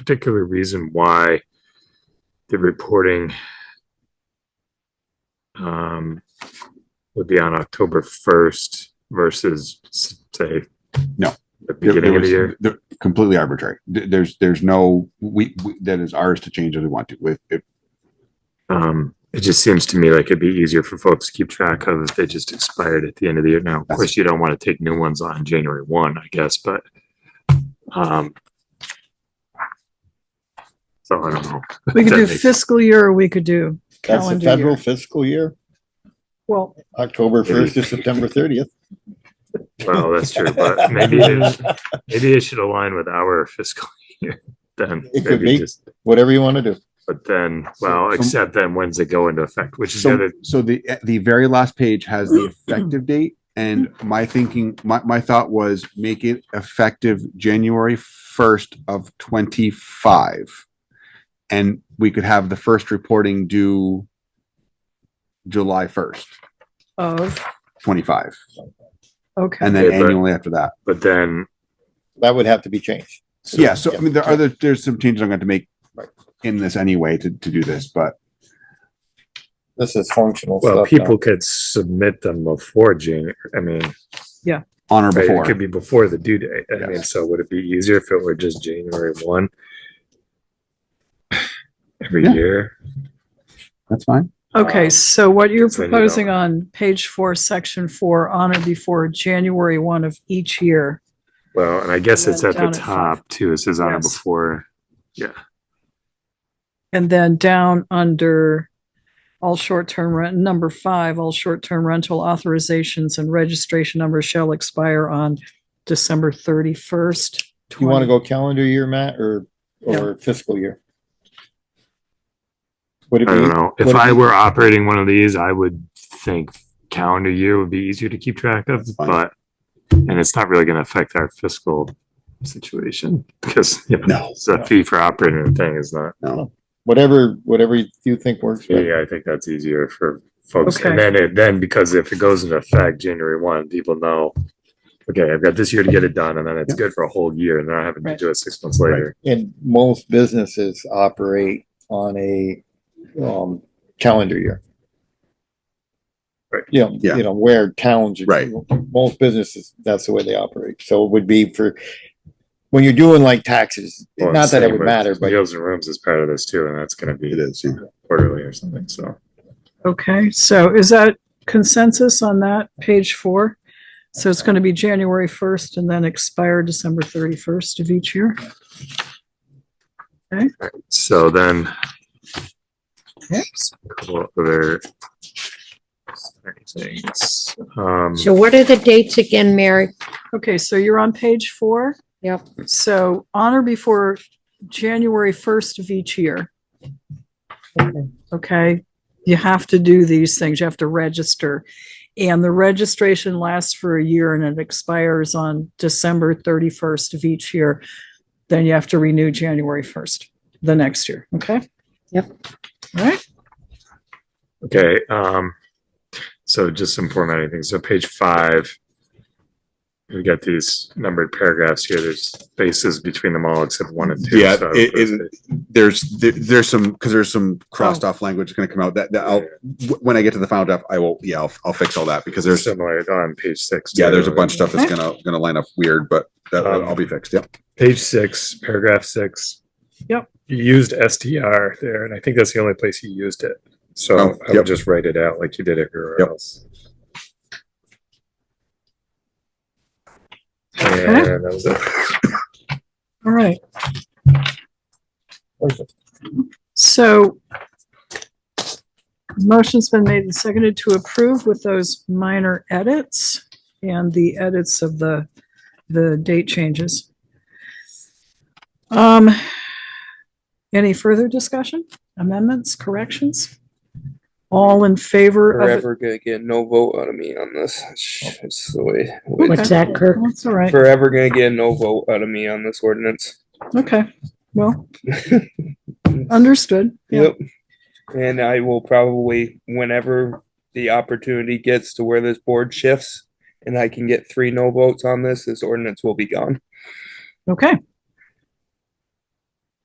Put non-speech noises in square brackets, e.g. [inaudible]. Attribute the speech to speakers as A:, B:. A: particular reason why the reporting um, would be on October first versus s- say
B: No.
A: the
B: There- there
A: beginning of the
B: was-
A: year.
B: there- Completely arbitrary. Th- There's, there's no, we, we- that is ours to change as we want to. If, if,
A: Um, it just seems to me like it'd be easier for folks to keep track of if they just expired at the end of the year. Now, of
B: That's-
A: course, you don't want to take new ones on January one, I guess, but um, so I don't know.
C: We could
A: That
C: do
A: makes-
C: fiscal year or we could do
D: That's the
C: calendar
D: federal
C: year.
D: fiscal year,
C: Well,
D: October first to September thirtieth.
A: Well, that's true, [laughs] but maybe it, maybe it should align with our fiscal year [laughs] then.
D: It could
A: Maybe
D: be.
A: just-
D: Whatever you want to do.
A: But then,
B: So-
A: well,
B: so-
A: except then when's it go into effect, which is the
B: so,
A: other,
B: so the, the very last page has the effective date. And my thinking, my, my thought was make it effective January first of twenty-five. And we could have the first reporting due July first,
C: of,
B: twenty-five,
C: okay,
B: and then
A: Okay, but-
B: annually after that.
A: but then,
D: That would have to be changed.
B: Yeah, so I mean, there are
D: yeah.
B: other, there's some changes I'm going to make
D: Right.
B: in this anyway to, to do this, but
D: This is functional stuff.
A: well,
D: now.
A: people could submit them before June. I mean,
B: on or
A: right,
B: before.
A: it could be before the due date. I mean,
B: Yes.
A: so would it be easier if it were just January one? [sighs] Every
B: Yeah.
A: year?
B: That's fine.
C: okay, so what you're
A: Send it
C: proposing
A: over.
C: on page four, section four, on or before January one of each year.
A: Well, and I guess
C: And
A: it's
C: then
A: at the
C: down at five.
A: top too. It says on or
C: Yes.
A: before.
C: And then down under all short-term rent, number five, all short-term rental authorizations and registration numbers shall expire on December thirty-first.
D: You want to go calendar year, Matt, or,
C: No.
D: or fiscal year? Would it
A: I
D: be,
A: don't know. If
D: would it
A: I
D: be-
A: were operating one of these, I would think calendar year would be easier to keep track of,
B: Fine.
A: but and it's not really going to affect our fiscal situation [laughs] because you know,
B: No.
A: it's a fee for operating the thing is not.
D: whatever, whatever you think works.
A: Yeah,
D: right?
A: yeah, I think that's easier for folks. And
C: Okay.
A: then it, then because if it goes into effect January one, people know, okay, I've got this year to get it done and then it's
B: Yeah.
A: good for a whole year and then I having to
C: Right.
A: do it six months later.
D: And most businesses operate on a, um, calendar year.
A: Right.
D: You know,
B: Yeah.
D: you know, where towns.
B: Right.
D: Most businesses, that's the way they operate. So it would be for, when you're doing like taxes,
A: Well,
D: not that it
A: same
D: would
A: with
D: matter, but
A: Meals and rooms is part of this too, and that's gonna
B: It
A: be
B: is, yeah.
A: quarterly or something, so.
C: Okay, so is that consensus on that, page four? So it's going to be January first and then expire December thirty-first of each year?
A: So then.
C: Yep.
A: Couple other. Things, um,
E: So what are the dates again, Mary?
C: Okay, so you're on page four?
E: Yep.
C: So on or before January first of each year. Okay, you have to do these things, you have to register. And the registration lasts for a year and it expires on December thirty-first of each year. Then you have to renew January first, the next year, okay?
E: Yep.
C: All right,
A: okay, um, so just some formatting things, so page five. We got these numbered paragraphs here, there's spaces between them all except one and two.
B: Yeah,
A: so I
B: it-
A: would-
B: There's, there- there's some, because there's some crossed off language that's going to come out that, that I'll, wh- when I get to the final draft, I will, yeah, I'll, I'll fix all that because
A: They're
B: there's,
A: similar on page six.
B: yeah,
A: too.
B: there's a bunch of stuff that's
C: Okay.
B: gonna, gonna line up weird, but that,
A: Um,
B: I'll be fixed. Yep.
A: Page six, paragraph six.
C: Yep.
A: You used STR there, and I think that's the only place you used it. So
B: Oh,
A: I would
B: yep.
A: just write it out like you did everywhere
B: Yep.
A: else.
C: Okay.
A: And that was it.
C: all right. So motion's been made and seconded to approve with those minor edits and the edits of the, the date changes. Um, any further discussion, amendments, corrections? All in favor of? it?
F: forever gonna get no vote out of me on this. It's- It's the way.
E: What's that, Kirk?
C: That's all right.
F: Forever gonna get no vote out of me on this ordinance.
C: Okay, well, [laughs] understood. Yeah.
F: Yep. And I will probably, whenever the opportunity gets to where this board shifts and I can get three no votes on this, this ordinance will be gone.
C: Okay,